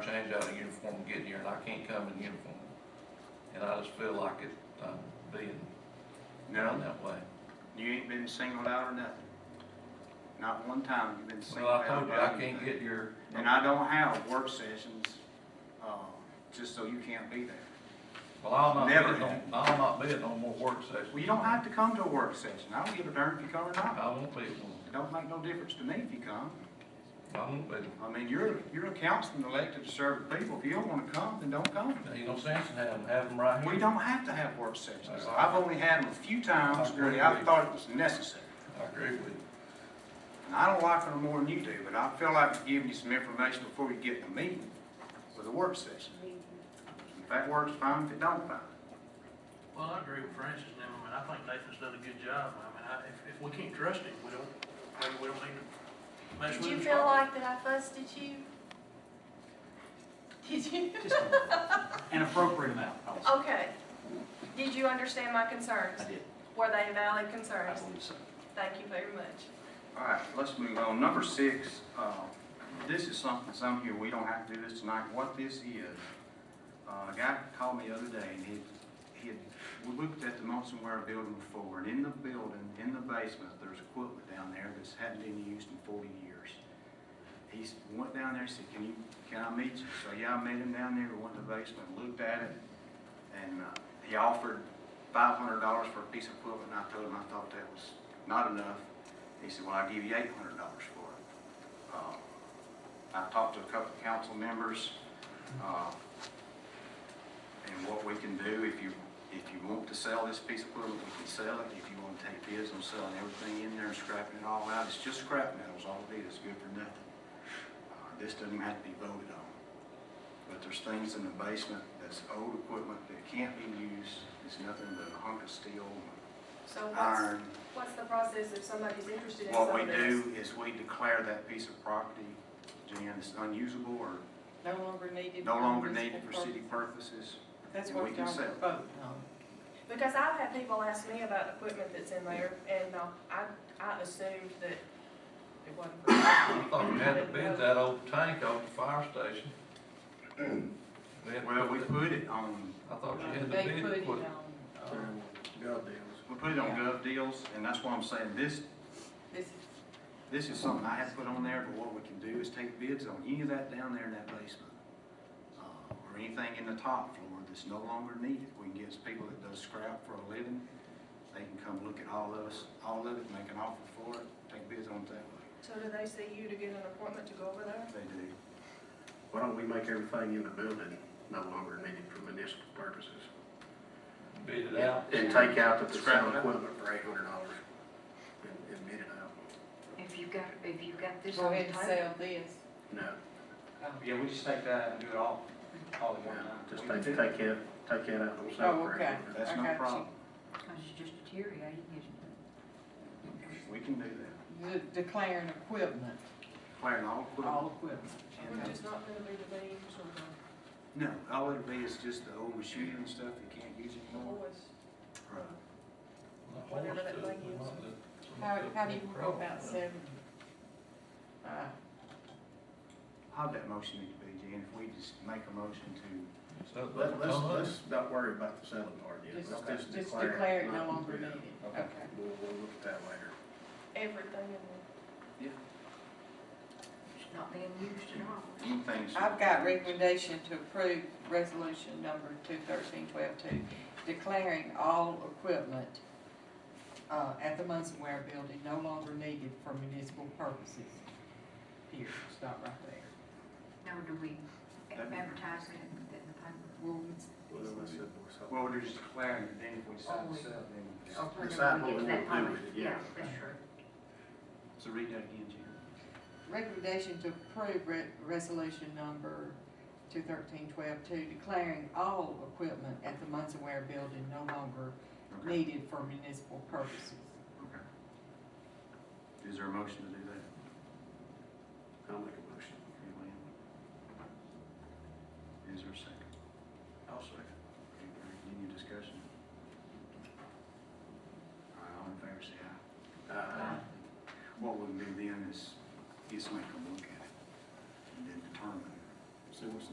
change out of uniform and get here, and I can't come in uniform. And I just feel like it, I'm being done No, that way. you ain't been singled out or nothing. Not one time you been singled Well, I out. told you, about I can't anything. get your, And I don't have work sessions, uh, just so you can't be there. well, I'll not be Never at no, I'll not be at no more work sessions. Well, you don't have to come to a work session. I don't give a darn if you come or not. I won't be at one, It don't make no difference to me if you come. I won't be. I mean, you're, you're a councilman elected to serve the people. If you don't wanna come, then don't come. There ain't no sense in having, having them right We here. don't have to have work sessions. Uh, I've only had them a few times where I thought it was necessary. I agree with you. And I don't like them more than you do, but I feel like giving you some information before you get in the meeting with a work session. If that works fine, if it don't, fine. Well, I agree with Francis and them. I mean, I think Nathan's done a good job. I mean, I, if, if we can't trust him, we don't, maybe we don't need to mess Did with him. you feel like that I fussed at you? Did you? Just an appropriate amount, I would say. Okay. Did you understand my concerns? I did, Were they valid I concerns? believe so. Thank you very much. All right, let's move on. Number six, uh, this is something, some here, we don't have to do this tonight. What this is, uh, a guy called me the other day and he, he had, we looked at the Munson Ware building before and in the building, in the basement, there's equipment down there that's hadn't been used in forty years. He s- went down there and said, can you, can I meet you? So, yeah, I met him down there, We went to the basement, looked at it, and, uh, he offered five hundred dollars for a piece of equipment and I told him I thought that was not enough. He said, well, I'll give you eight hundred dollars for it. Uh, I talked to a couple of council members, uh, and what we can do, if you, if you want to sell this piece of equipment, we can sell it. If you want to take bids on selling everything in there and scrapping it all out, it's just scrap metals, all it is, it's good for nothing. Uh, This doesn't have to be voted on. But there's things in the basement that's old equipment that can't be used, it's nothing but a hunk of steel, So what's, iron. what's the process if somebody's interested in some What we of this? do is we declare that piece of property, Jan, is unusable or No longer needed. no for longer municipal needed for city purposes. purpose. That's and we what can y'all sell it. vote on. Because I've had people ask me about equipment that's in there and uh, I, I assumed that it wasn't. for I thought we had to bid that old tank off the fire station. We had to Well, we put put it on, that- I thought you had to They bid put it equipment. on, uh, Um, we put it on Yeah. gov deals, and that's why I'm saying this, this, this is something I have put on there, but what we can do is take bids on any of that down there in that basement. uh, Or anything in the top floor that's no longer needed. We can get people that does scrap for a living, they can come look at all of us, all of it, make an offer for it, take bids on it that way. So do they see you to get an appointment to go over there? They do. Why don't we make everything in the building no longer needed for municipal purposes? Bid it out. And take out the Scrap scrap it out. equipment for eight hundred dollars and, and bid it out? If you got, if you got this go on the ahead and uh, table, sell this. No, Yeah, we just take that out and do it all, all at no, one time. just We take, can do take that. that, take that out on Oh, sale for okay. eight hundred. That's I no got you. problem. because it's just deteriorating, isn't it? We can do that. De- Declaring equipment, Declaring all equipment. all equipment. and, We're uh, just not gonna do the beams or the- No, all it'd be is just the old machinery and stuff you can't use the anymore. voice. Right. Whatever that thing is. How, how do you go about selling? Uh, How'd that motion need to be, Jan, if we just make a motion to, Let, let's, let's not worry about the selling part yet, Just- let's just Just declare. declare it not- no longer yeah. needed, Okay. okay. We'll, we'll look at that later. Everything in there. It's not being used at all. anything? I've got recommendation to approve resolution number two thirteen twelve two, declaring all equipment uh, at the Munson Ware Building no longer needed for municipal purposes. Here, stop right there. Now, do we That'd be- advertise it in the paper? Well, Well, we're just declaring it, then if we decide to Always. sell, it, then. we Or Oh, decide. whenever we Decide what we get to wanna that do point. with it, yeah. Yeah, that's true. So read that again, Jan. Recommendation to approve re- resolution number two thirteen twelve two, declaring all equipment at the Munson Ware Building no longer Okay. needed for municipal purposes. Okay. Is there a motion to do that? I'll make a motion. Okay, Lynn? Is there a second? I'll second. Okay, Greg, Any discussion? All right, all in favor, say aye. Uh, What we'll do then is, get somebody to come look at it, and then determine. see what's